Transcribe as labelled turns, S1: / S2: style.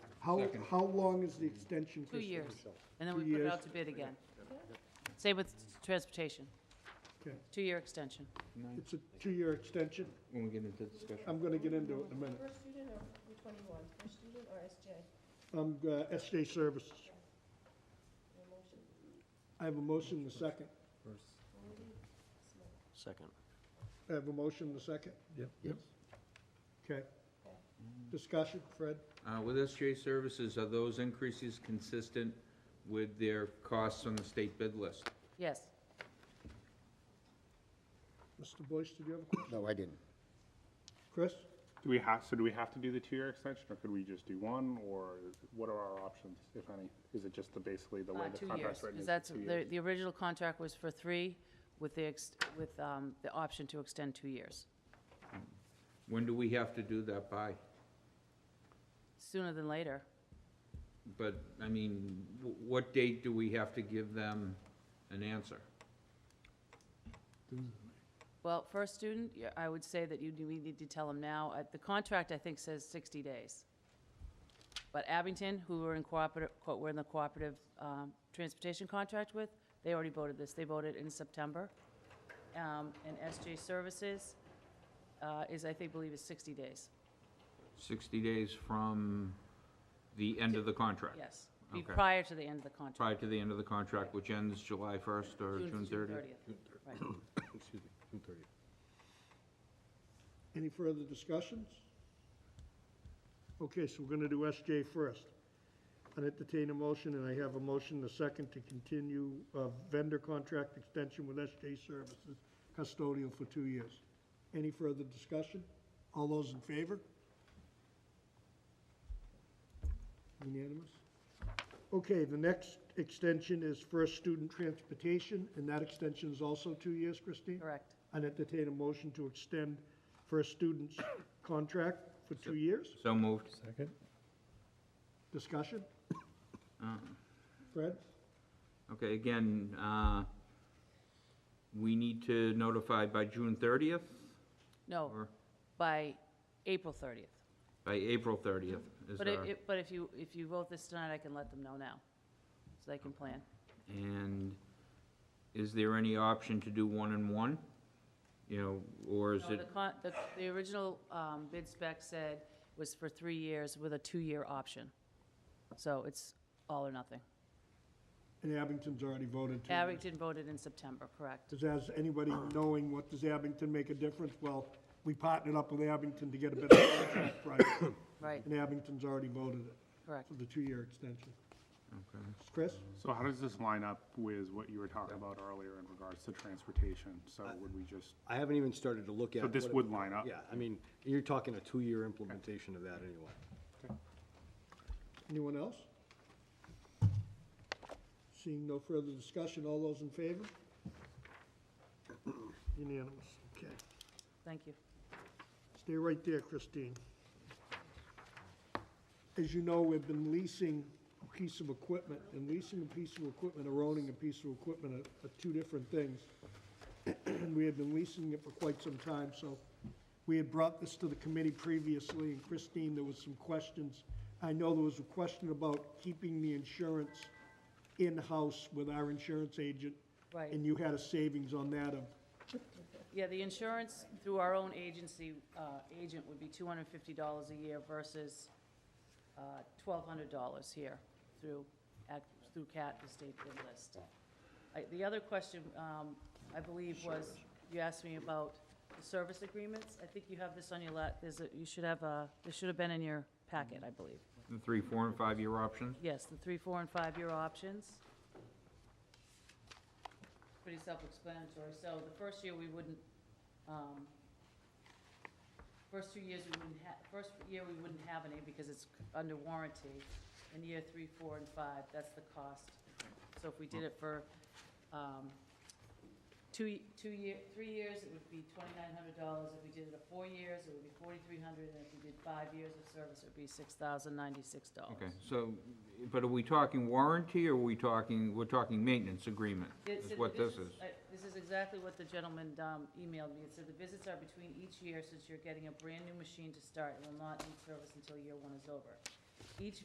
S1: How,
S2: Second.
S1: how long is the extension?
S3: Two
S1: Christine?
S3: years, and then
S1: Two
S3: we put it
S1: years.
S3: out to bid again. Same with transportation,
S1: Okay.
S3: two-year extension.
S2: Nine,
S1: It's a two-year extension.
S2: when we get into discussion.
S1: I'm going to get into it in a minute.
S4: First student or Route 21, first student or SJ?
S1: I'm uh, SJ Services.
S4: No motion,
S1: I have a motion and a second.
S5: Second.
S1: I have a motion and a second? Yep. Yes. Okay. Discussion, Fred?
S2: Uh, with SJ Services, are those increases consistent with their costs on the state bid list?
S3: Yes,
S1: Mr. Boyce, did you have a question?
S6: No, I didn't.
S1: Chris?
S7: Do we have, so do we have to do the two-year extension, or could we just do one, or what are our options, if any? Is it just the, basically the way
S3: uh,
S7: the
S3: two years,
S7: contract's written?
S3: because
S7: is
S3: that's,
S7: two
S3: the,
S7: years?
S3: the original contract was for three with the, ex- with, um, the option to extend two years,
S2: When do we have to do that by?
S3: sooner than later.
S2: But, I mean, wh- what date do we have to give them an answer?
S3: Well, first student, yeah, I would say that you, do- we need to tell them now, Uh, the contract, I think, says 60 days. But Abington, who we're in cooperative, co- we're in the cooperative um, transportation contract with, they already voted this, they voted in September. Um, And SJ Services uh, is, I think, believe is 60 days,
S2: Sixty days from the end of the contract?
S3: yes. Be
S2: Okay.
S3: Prior to the end of the contract.
S2: Prior to the end of the contract, which ends July first or June thirtieth?
S3: Right.
S5: Excuse me, June thirtieth.
S1: Any further discussions? Okay, so we're going to do SJ first. I entertain a motion, and I have a motion, and a second, to continue uh, vendor contract extension with SJ Services custodial for two years. Any further discussion? All those in favor? Unanimous? Okay, the next extension is First Student Transportation, and that extension is also two years, Christine?
S3: Correct,
S1: I'd entertain a motion to extend for a student's contract for two years.
S2: So moved.
S1: Discussion? Fred?
S2: Okay, again, uh, we need to notify by June thirtieth
S3: no,
S2: or
S3: by April 30th.
S2: by April thirtieth is
S3: But if,
S2: our,
S3: if- but if you, if you vote this tonight, I can let them know now, so they can plan.
S2: and is there any option to do one and one? You know, or is
S3: No, The,
S2: it,
S3: con- the, the original um, bid spec said was for three years with a two-year option. So it's all or nothing.
S1: And Abington's already voted two years.
S3: Abington voted in September, correct?
S1: Does, has anybody knowing what, does Abington make a difference? Well, we partnered up with Abington to get a better contract price,
S3: Right,
S1: and Abington's already voted it
S3: correct.
S1: for the two-year extension.
S2: okay.
S1: Chris?
S7: So how does this line up with what you were talking about earlier in regards to transportation? So would we just,
S5: I haven't even started to look at.
S7: so this
S5: what it-
S7: would line up?
S5: Yeah, I mean, you're talking a two-year implementation of that anyway.
S1: Anyone else? Seeing no further discussion, all those in favor? Unanimous, okay.
S3: Thank you.
S1: Stay right there, Christine. As you know, we've been leasing a piece of equipment, and leasing a piece of equipment or owning a piece of equipment are, are two different things. And we had been leasing it for quite some time, so we had brought this to the committee previously, and Christine, there was some questions. I know there was a question about keeping the insurance in-house with our insurance agent.
S3: Right.
S1: And you had a savings on that of
S3: Yeah, the insurance through our own agency, uh, agent would be two hundred and fifty dollars a year versus, uh, twelve hundred dollars here through, at, through CAT, the state bid list. I- The other question, um, I believe was, you asked me about the service agreements. I think you have this on your la, there's a, you should have a, this should have been in your packet, I believe.
S2: The three, four, and five-year options?
S3: Yes, the three, four, and five-year options. Pretty self-explanatory. So the first year, we wouldn't, um, first two years, we wouldn't have, first year, we wouldn't have any because it's under warranty. In year three, four, and five, that's the cost. So if we did it for, um, two, y- two year, three years, it would be twenty-nine hundred dollars. If we did it at four years, it would be forty-three hundred, and if we did five years of service, it would be six thousand ninety-six dollars.
S2: Okay, so, but are we talking warranty or are we talking, we're talking maintenance agreement?
S3: It
S2: Is
S3: said
S2: what
S3: the
S2: this is.
S3: visits- I- This is exactly what the gentleman um, emailed me. It said the visits are between each year since you're getting a brand-new machine to start and will not need service until year one is over. Each